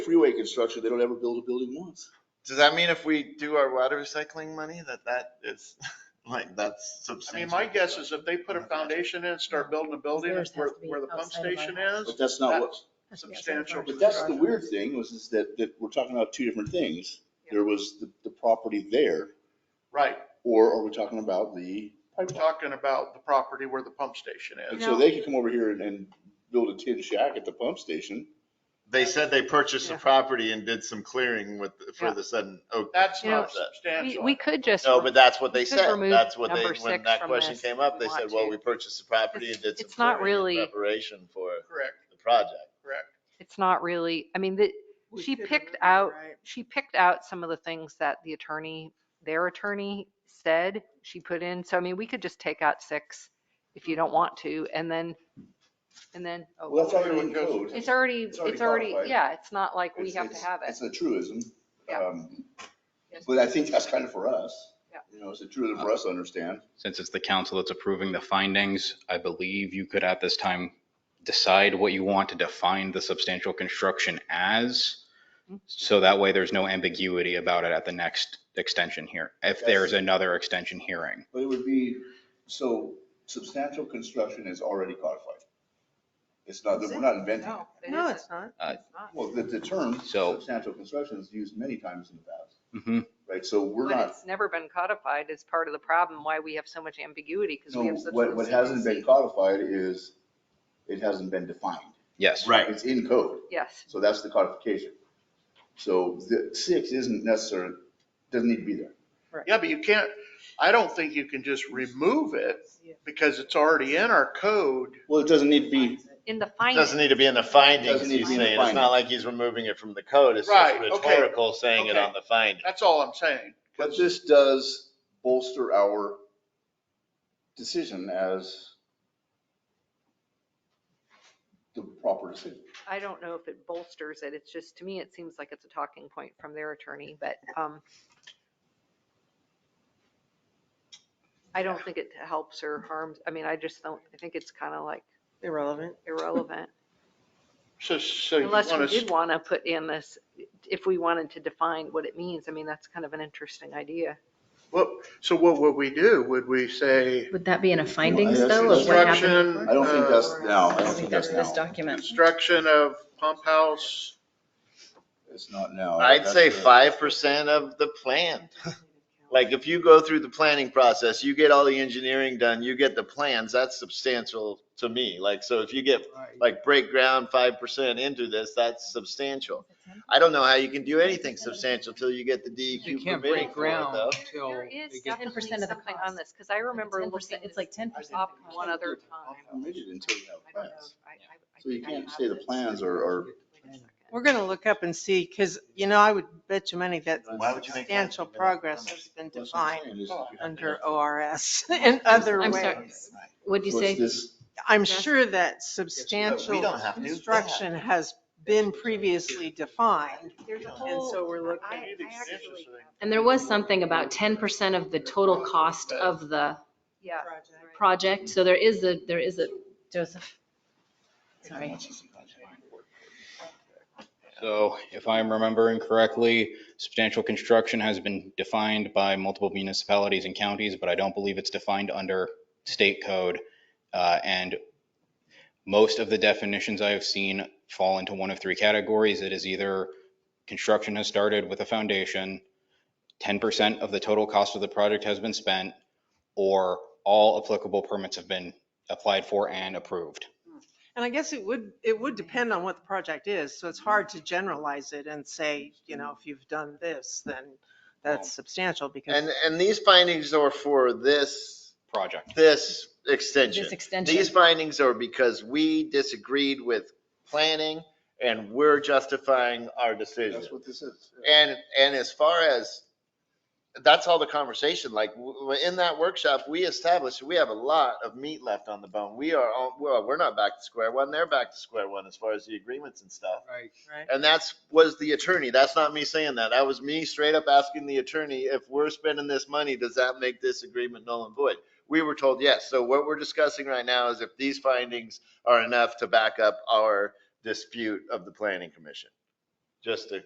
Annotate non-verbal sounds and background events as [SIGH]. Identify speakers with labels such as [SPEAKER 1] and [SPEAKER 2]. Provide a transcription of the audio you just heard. [SPEAKER 1] freeway construction, they don't ever build a building once.
[SPEAKER 2] Does that mean if we do our water recycling money, that that is, [LAUGHS] like, that's
[SPEAKER 3] I mean,
[SPEAKER 2] substantial?
[SPEAKER 3] my guess is if they put a foundation in, start building a building
[SPEAKER 4] Theirs has
[SPEAKER 3] where,
[SPEAKER 4] to be
[SPEAKER 3] where the pump
[SPEAKER 4] outside of our
[SPEAKER 3] station
[SPEAKER 4] house.
[SPEAKER 3] is,
[SPEAKER 1] But that's not what,
[SPEAKER 3] substantial.
[SPEAKER 1] but that's the weird thing was is that, that we're talking about two different things. There was the, the property there,
[SPEAKER 3] right,
[SPEAKER 1] or are we talking about the,
[SPEAKER 3] I'm talking about the property where the pump station
[SPEAKER 1] and
[SPEAKER 3] is.
[SPEAKER 1] so they could come over here and, and build a tin shack at the pump station.
[SPEAKER 2] They said they purchased the
[SPEAKER 5] Yeah.
[SPEAKER 2] property and did some clearing with, for
[SPEAKER 5] Yeah.
[SPEAKER 2] the sudden oak.
[SPEAKER 3] That's
[SPEAKER 5] You know,
[SPEAKER 3] not
[SPEAKER 5] We,
[SPEAKER 3] substantial.
[SPEAKER 5] we could just,
[SPEAKER 2] No, but that's what they
[SPEAKER 5] We could
[SPEAKER 2] said.
[SPEAKER 5] remove
[SPEAKER 2] That's what they,
[SPEAKER 5] number
[SPEAKER 2] when
[SPEAKER 5] six
[SPEAKER 2] that
[SPEAKER 5] from
[SPEAKER 2] question
[SPEAKER 5] this
[SPEAKER 2] came
[SPEAKER 5] if
[SPEAKER 2] up,
[SPEAKER 5] we
[SPEAKER 2] they said,
[SPEAKER 5] want
[SPEAKER 2] well,
[SPEAKER 5] to.
[SPEAKER 2] we purchased the property and did some
[SPEAKER 5] It's not
[SPEAKER 2] clearing in
[SPEAKER 5] really-
[SPEAKER 2] preparation for
[SPEAKER 3] Correct,
[SPEAKER 2] the project.
[SPEAKER 3] correct.
[SPEAKER 5] it's not really, I mean, the,
[SPEAKER 6] We
[SPEAKER 5] she
[SPEAKER 6] could
[SPEAKER 5] picked
[SPEAKER 6] remove it,
[SPEAKER 5] out,
[SPEAKER 6] right?
[SPEAKER 5] she picked out some of the things that the attorney, their attorney said she put in. So I mean, we could just take out six if you
[SPEAKER 6] Mm-hmm.
[SPEAKER 5] don't want to, and then, and then, oh,
[SPEAKER 1] Well, that's
[SPEAKER 3] all-
[SPEAKER 1] already in code.
[SPEAKER 5] it's already,
[SPEAKER 1] it's already
[SPEAKER 5] it's already,
[SPEAKER 1] codified.
[SPEAKER 5] yeah, it's not like we
[SPEAKER 1] It's-
[SPEAKER 5] have to
[SPEAKER 1] it's-
[SPEAKER 5] have it.
[SPEAKER 1] It's a truism.
[SPEAKER 5] Yeah.
[SPEAKER 1] Um, But I think that's kind of for us.
[SPEAKER 5] Yeah.
[SPEAKER 1] You know, it's a truism for us to understand.
[SPEAKER 7] Since it's the council that's approving the findings, I believe you could at this time decide what you want to define the substantial construction as. So that way there's no ambiguity about it at the next extension here, if there's another extension hearing.
[SPEAKER 1] But it would be, so substantial construction is already codified. It's not, we're not inventing it.
[SPEAKER 6] No,
[SPEAKER 5] It
[SPEAKER 6] no,
[SPEAKER 5] isn't.
[SPEAKER 6] it's not.
[SPEAKER 7] Uh,
[SPEAKER 6] It's not.
[SPEAKER 1] Well, the, the term
[SPEAKER 7] So-
[SPEAKER 1] substantial construction is used many times in the past,
[SPEAKER 7] Mhm.
[SPEAKER 1] right? So we're
[SPEAKER 5] But
[SPEAKER 1] not,
[SPEAKER 5] it's never been codified as part of the problem, why we have so much ambiguity, because
[SPEAKER 1] no,
[SPEAKER 5] we have such.
[SPEAKER 1] what,
[SPEAKER 5] low
[SPEAKER 1] what hasn't been
[SPEAKER 5] CPC.
[SPEAKER 1] codified is, it hasn't been defined.
[SPEAKER 7] Yes.
[SPEAKER 1] It's in code,
[SPEAKER 5] Yes,
[SPEAKER 1] so that's the codification. So the six isn't necessary, doesn't need to be there.
[SPEAKER 3] Yeah, but you can't, I don't think you can just remove it
[SPEAKER 6] Yeah.
[SPEAKER 3] because it's already in our code.
[SPEAKER 1] Well, it doesn't need to be,
[SPEAKER 5] in the
[SPEAKER 2] It Doesn't
[SPEAKER 5] finding,
[SPEAKER 2] need to be in the
[SPEAKER 1] Doesn't
[SPEAKER 2] findings,
[SPEAKER 1] need to
[SPEAKER 2] he's
[SPEAKER 1] be in the
[SPEAKER 2] saying. It's not
[SPEAKER 1] findings.
[SPEAKER 2] like he's removing it from the code. It's just
[SPEAKER 3] Right, okay,
[SPEAKER 2] rhetorical saying it
[SPEAKER 3] okay.
[SPEAKER 2] on the finding.
[SPEAKER 3] That's all I'm saying.
[SPEAKER 1] but this does bolster our decision as the proper decision.
[SPEAKER 5] I don't know if it bolsters it, it's just, to me, it seems like it's a talking point from their attorney, but, um, I don't think it helps or harms, I mean, I just don't, I think it's kind of like
[SPEAKER 6] Irrelevant.
[SPEAKER 5] irrelevant.
[SPEAKER 3] So, so you want
[SPEAKER 5] Unless we
[SPEAKER 3] to,
[SPEAKER 5] did want to put in this, if we wanted to define what it means, I mean, that's kind of an interesting idea.
[SPEAKER 3] what, so what would we do? Would we say
[SPEAKER 4] Would that be in a
[SPEAKER 1] I
[SPEAKER 4] findings
[SPEAKER 1] guess
[SPEAKER 4] though
[SPEAKER 1] it's
[SPEAKER 4] of what happened?
[SPEAKER 3] construction?
[SPEAKER 1] I don't think
[SPEAKER 3] uh,
[SPEAKER 1] that's now, I
[SPEAKER 4] I
[SPEAKER 1] don't
[SPEAKER 4] don't
[SPEAKER 1] think
[SPEAKER 4] think
[SPEAKER 1] that's
[SPEAKER 4] that's this
[SPEAKER 1] now.
[SPEAKER 4] document.
[SPEAKER 3] Construction of pump house.
[SPEAKER 1] It's not now.
[SPEAKER 2] I'd
[SPEAKER 1] Oh, That's
[SPEAKER 2] say
[SPEAKER 1] the-
[SPEAKER 2] five percent of the plan. Like if you go through the planning process, you get all the engineering done, you get the plans, that's substantial to me. Like, so if you get like break ground five percent into this, that's substantial. I don't know how you can do anything substantial till you get the
[SPEAKER 8] You
[SPEAKER 2] DEQ
[SPEAKER 8] can't
[SPEAKER 2] permitting
[SPEAKER 8] break
[SPEAKER 2] for it
[SPEAKER 8] ground
[SPEAKER 2] though.
[SPEAKER 8] until
[SPEAKER 5] There
[SPEAKER 8] they
[SPEAKER 5] is
[SPEAKER 8] get,
[SPEAKER 4] 10% of the
[SPEAKER 5] definitely something on
[SPEAKER 4] cost.
[SPEAKER 5] this, because I remember
[SPEAKER 4] 10%,
[SPEAKER 5] looking
[SPEAKER 4] It's like ten
[SPEAKER 5] this
[SPEAKER 4] percent.
[SPEAKER 5] up one other time.
[SPEAKER 1] Permitted until you
[SPEAKER 5] I
[SPEAKER 1] have
[SPEAKER 5] don't know
[SPEAKER 1] plans.
[SPEAKER 5] if I- I- I
[SPEAKER 1] So you
[SPEAKER 5] think I
[SPEAKER 1] can't
[SPEAKER 5] have
[SPEAKER 1] say the
[SPEAKER 5] this.
[SPEAKER 1] plans are, are,
[SPEAKER 5] Wait a second.
[SPEAKER 6] We're going to look up and see, because, you know, I would bet you money that
[SPEAKER 2] Why would you make that
[SPEAKER 6] substantial
[SPEAKER 2] even a
[SPEAKER 6] progress
[SPEAKER 2] comment?
[SPEAKER 6] has been
[SPEAKER 1] that's what I'm
[SPEAKER 6] defined
[SPEAKER 1] saying is you have to-
[SPEAKER 6] under ORS [LAUGHS] in other
[SPEAKER 4] I'm sorry.
[SPEAKER 6] ways.
[SPEAKER 4] What'd you
[SPEAKER 1] So it's
[SPEAKER 4] say?
[SPEAKER 1] this-
[SPEAKER 6] I'm
[SPEAKER 5] Yes.
[SPEAKER 6] sure that
[SPEAKER 2] We
[SPEAKER 6] substantial
[SPEAKER 2] don't have to do that.
[SPEAKER 6] construction has been previously defined,
[SPEAKER 5] There's a
[SPEAKER 6] and
[SPEAKER 5] whole,
[SPEAKER 6] so we're looking.
[SPEAKER 5] I,
[SPEAKER 3] Maybe
[SPEAKER 5] I
[SPEAKER 3] it's
[SPEAKER 5] actually,
[SPEAKER 3] interesting.
[SPEAKER 4] And there was something about ten percent of the total cost of the
[SPEAKER 5] yeah.
[SPEAKER 4] project. So there is a, there is a, Joseph. Sorry.
[SPEAKER 7] So if I'm remembering correctly, substantial construction has been defined by multiple municipalities and counties, but I don't believe it's defined under state code. Uh, And most of the definitions I have seen fall into one of three categories. It is either construction has started with a foundation, 10% of the total cost of the project has been spent, or all applicable permits have been applied for and approved.
[SPEAKER 6] And I guess it would, it would depend on what the project is, so it's hard to generalize it and say, you know, if you've done this, then that's substantial because
[SPEAKER 2] And, and these findings are for this,
[SPEAKER 7] Project.
[SPEAKER 2] this extension.
[SPEAKER 4] This extension.
[SPEAKER 2] These findings are because we disagreed with planning and we're justifying our decision.
[SPEAKER 1] That's what this is.
[SPEAKER 2] And, and as far as, that's all the conversation, like, w- w- in that workshop, we established, we have a lot of meat left on the bone. We are, all- well, we're not back to square one, they're back to square one as far as the agreements and stuff.
[SPEAKER 8] right,
[SPEAKER 2] And that's, was the attorney, that's not me saying that, that was me straight up asking the attorney, if we're spending this money, does that make this agreement null and void? We were told yes, so what we're discussing right now is if these findings are enough to back up our dispute of the planning commission. just to